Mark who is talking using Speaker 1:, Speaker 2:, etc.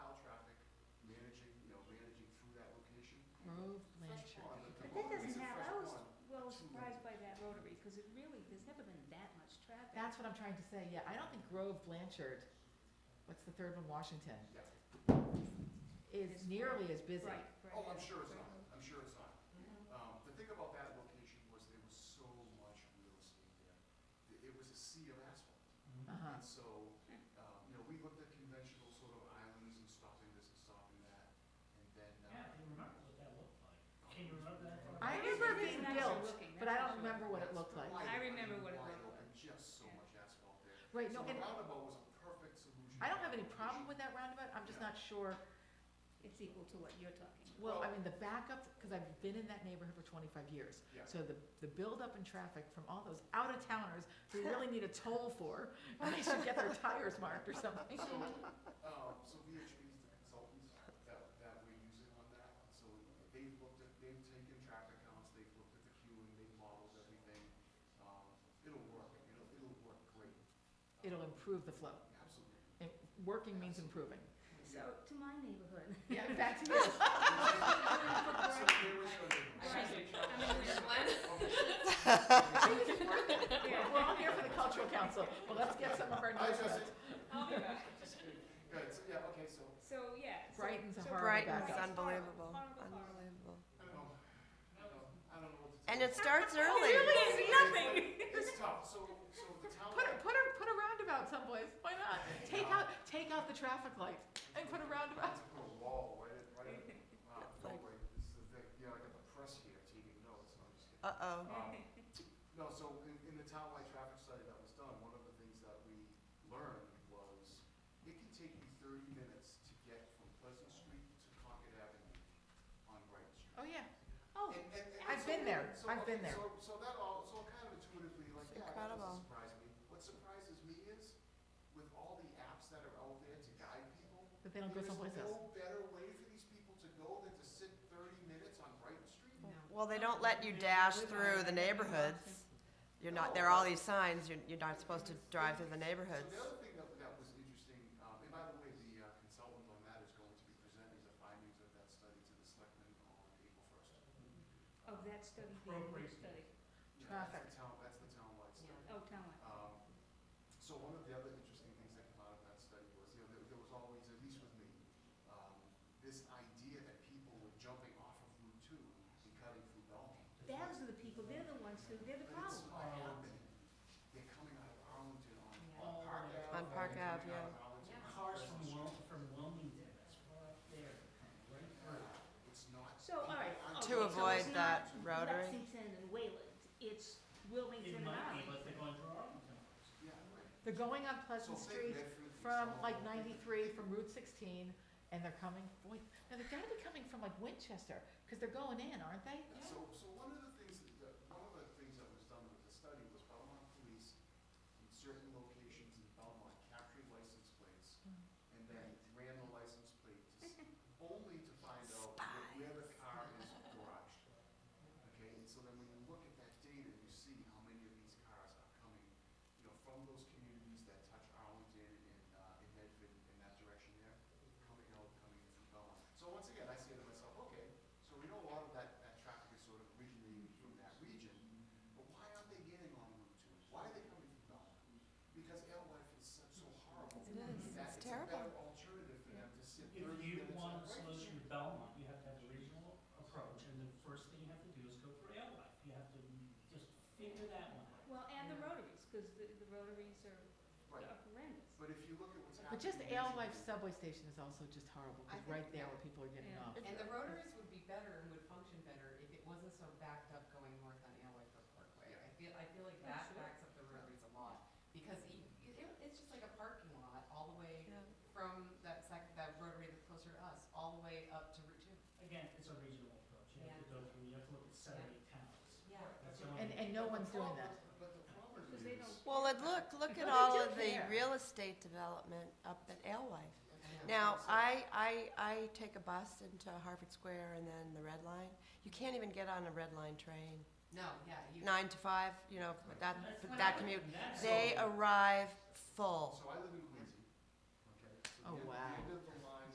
Speaker 1: Grove Blanchard.
Speaker 2: But
Speaker 3: that doesn't
Speaker 2: have.
Speaker 3: happen, I was well surprised by that rotary, cause it really, there's never been that much traffic.
Speaker 1: That's what I'm trying to say, yeah, I don't think Grove Blanchard, what's the third one, Washington,
Speaker 2: Yeah.
Speaker 1: is
Speaker 3: Is
Speaker 1: nearly as busy.
Speaker 3: Right, right.
Speaker 2: Oh, I'm sure it's not, I'm sure it's not.
Speaker 3: Mhm.
Speaker 2: Um, the thing about that location was there was so much real estate there. Th- It was a sea of asphalt.
Speaker 1: Uh-huh,
Speaker 2: And so, um, you know, we looked at conventional sort of islands and stopping this and stopping that, and then,
Speaker 4: Yeah, I
Speaker 2: uh,
Speaker 4: can remember what that looked like. Can you remember that? far
Speaker 1: I
Speaker 4: back?
Speaker 1: remember
Speaker 3: It's
Speaker 1: being
Speaker 3: nicer
Speaker 1: built,
Speaker 3: looking,
Speaker 1: but I
Speaker 3: that's for
Speaker 1: don't
Speaker 3: sure.
Speaker 1: remember what it
Speaker 2: that's
Speaker 1: looked like.
Speaker 2: wide
Speaker 3: I
Speaker 2: open,
Speaker 3: remember what it
Speaker 2: wide
Speaker 3: looked
Speaker 2: open,
Speaker 3: like.
Speaker 2: Just so
Speaker 3: Yeah.
Speaker 2: much asphalt there.
Speaker 1: Right, no,
Speaker 2: So the
Speaker 1: and
Speaker 2: roundabout was a perfect solution.
Speaker 1: I don't
Speaker 2: to
Speaker 1: have
Speaker 2: that
Speaker 1: any problem
Speaker 2: location.
Speaker 1: with that roundabout, I'm just not sure,
Speaker 3: It's equal to what you're talking about.
Speaker 1: well, I mean, the backup, cause I've been in that neighborhood for twenty-five years.
Speaker 2: Yeah.
Speaker 1: So the, the buildup in traffic from all those out-of-towners who really need a toll for, and they should get their tires marked or something.
Speaker 2: So, um, so VHB's the consultants that, that we're using on that, so they've looked at, they've taken traffic counts, they've looked at the queuing, they've modeled everything. Um, it'll work, it'll, it'll work great. Um,
Speaker 1: It'll improve the flow,
Speaker 2: Absolutely.
Speaker 1: and working means improving.
Speaker 3: So, to my neighborhood.
Speaker 1: Yeah, back to you.
Speaker 2: So here was your
Speaker 3: Right.
Speaker 2: neighborhood.
Speaker 3: I'm in Brooklyn.
Speaker 1: We're we're all here for the cultural council, well, let's get some of our
Speaker 2: Hi, Jesse.
Speaker 1: neighborhoods.
Speaker 3: I'll be back.
Speaker 2: Just kidding. Good, so, yeah, okay, so,
Speaker 3: So, yeah. so-
Speaker 1: Brighton's a
Speaker 3: so
Speaker 1: horrible
Speaker 5: Brighton's
Speaker 1: backup.
Speaker 5: unbelievable,
Speaker 3: Horrible, horrible.
Speaker 5: unbelievable.
Speaker 2: I don't know, um, I don't, I don't know what to tell
Speaker 5: And
Speaker 2: you.
Speaker 5: it starts early.
Speaker 3: Really is nothing.
Speaker 2: It's tough, so, so the town.
Speaker 1: Put a, put a, put a roundabout someplace, why not? Take out, take out the traffic light and put a roundabout.
Speaker 2: It's put a wall right at, right at, wow, no way, this is the thing, yeah, I got the press here taking notes, no, I'm just kidding.
Speaker 5: Uh-oh.
Speaker 2: Um, No, so in, in the townwide traffic study that was done, one of the things that we learned was it can take you thirty minutes to get from Pleasant Street to Concord Avenue on Brighton Street.
Speaker 1: Oh, yeah, oh,
Speaker 2: And- and- and
Speaker 1: I've
Speaker 2: so-
Speaker 1: been there.
Speaker 2: so,
Speaker 1: I've been
Speaker 2: okay,
Speaker 1: there.
Speaker 2: So, so that all, so kind of intuitively, like,
Speaker 5: It's
Speaker 2: yeah, that
Speaker 5: incredible.
Speaker 2: doesn't surprise me. What surprises me is with all the apps that are out there to guide people,
Speaker 1: but they don't go someplace
Speaker 2: there's no
Speaker 1: else.
Speaker 2: better way for these people to go than to sit thirty minutes on Brighton Street?
Speaker 5: Well, they don't let you dash through the neighborhoods. You're not, there are all these signs, you're, you're not supposed to drive through the
Speaker 2: So
Speaker 5: neighborhoods.
Speaker 2: the other thing that, that was interesting, um, and by the way, the uh, consultant on that is going to be presenting the findings of that study to the selectmen on April first. Um,
Speaker 5: Oh,
Speaker 3: Of Oh, that study, the
Speaker 4: Appropriate.
Speaker 3: study.
Speaker 1: Traffic.
Speaker 2: That's the town, that's the townwide study.
Speaker 3: Oh, tell me.
Speaker 2: Um, so one of the other interesting things that came out of that study was, you know, there, there was always, at least with me, um, this idea that people were jumping off of Route Two and cutting through Belleville.
Speaker 3: Those are the people, they're the ones who, they're the
Speaker 2: But it's not
Speaker 3: problem.
Speaker 2: happening. They're coming out of Arlington on,
Speaker 3: Yeah.
Speaker 2: on Park
Speaker 4: Yeah.
Speaker 2: Ave.
Speaker 5: On Park
Speaker 2: They're
Speaker 5: Ave,
Speaker 2: coming out
Speaker 5: yeah.
Speaker 2: of Arlington on
Speaker 4: Cars from
Speaker 2: Pleasant
Speaker 4: Wil- from Wilmington, that's far up there, right through.
Speaker 2: Street. It's not.
Speaker 3: So, all right,
Speaker 2: people aren't
Speaker 3: okay,
Speaker 5: To
Speaker 3: so
Speaker 5: avoid
Speaker 3: it's not
Speaker 5: that rotary.
Speaker 3: Lexington and Wayland, it's Wilmington
Speaker 4: It
Speaker 3: and
Speaker 4: might be,
Speaker 3: Arlington.
Speaker 4: but they're going through Arlington first.
Speaker 2: Yeah, right.
Speaker 1: They're going on Pleasant
Speaker 2: So
Speaker 1: Street
Speaker 2: think Medford and
Speaker 1: from
Speaker 2: Solomon.
Speaker 1: like ninety-three, from Route sixteen, and they're coming, boy, now they've gotta be coming from like Winchester, cause they're going in, aren't they?
Speaker 2: Yeah, So, so one of the things, that- that, one of the things that was done with the study was Belmont Police in certain locations in Belmont captured license plates
Speaker 1: Mm.
Speaker 2: and then ran the license plate to s- only to find out where, where the car is garaged. Okay, and so then when you look at that data, you see how many of these cars are coming, you know, from those communities that touch Arlington and, uh, and Medford in that direction there, coming out, coming through Belmont. So once again, I say to myself, okay, so we know a lot of that, that traffic is sort of originating from that region, but why aren't they getting on Route Two? Why are they coming from Belmont? Because Alewife is so, so horrible.
Speaker 5: It is.
Speaker 2: that
Speaker 5: It's terrible.
Speaker 2: a better alternative for them to sit
Speaker 4: If
Speaker 2: thirty
Speaker 4: you
Speaker 2: minutes on
Speaker 4: want a
Speaker 2: Brighton
Speaker 4: solution
Speaker 2: Street.
Speaker 4: to Belmont, you have to have a regional approach, and the first thing you have to do is go for Alewife. You have to just figure that one out.
Speaker 3: Well, and the rotaries, because the, the rotaries are
Speaker 2: Right,
Speaker 3: are horrendous.
Speaker 2: but if you look at what's happening.
Speaker 1: But just Alewife
Speaker 2: recently-
Speaker 1: subway station is also just horrible,
Speaker 6: I
Speaker 1: cause
Speaker 6: think-
Speaker 1: right there where people are getting
Speaker 3: Yeah.
Speaker 1: off.
Speaker 6: And the rotaries would be better and would function better if it wasn't so backed up going north on Alewife or Parkway. I feel, I feel like
Speaker 3: Oh,
Speaker 6: that
Speaker 3: sure.
Speaker 6: backs up the rotaries a lot, because e- it, it, it's just like a parking lot all the way from that sec, that rotary that's closer to us, all the way up to Route Two.
Speaker 4: Again, it's a regional approach. You have to go through, you have to look at seven, eight towns.
Speaker 6: Yeah.
Speaker 4: That's the only.
Speaker 1: And, and no one's doing that.
Speaker 2: But the problem
Speaker 3: Because they
Speaker 2: is.
Speaker 3: don't-
Speaker 5: Well, and look, look
Speaker 1: What
Speaker 5: at
Speaker 1: they
Speaker 5: all
Speaker 1: do
Speaker 5: of the
Speaker 1: there.
Speaker 5: real estate development up at Alewife.
Speaker 6: Yeah.
Speaker 5: Now, I, I, I take a bus into Harvard Square and then the Red Line. You can't even get on a Red Line train,
Speaker 6: No, yeah, you.
Speaker 5: nine to five, you know, but that,
Speaker 4: That's
Speaker 5: but
Speaker 4: what
Speaker 5: that
Speaker 4: I-
Speaker 5: commute.
Speaker 4: that's-
Speaker 5: They arrive full.
Speaker 2: So I live in Quincy, okay? so
Speaker 1: Oh,
Speaker 2: the-
Speaker 1: wow.
Speaker 2: The end of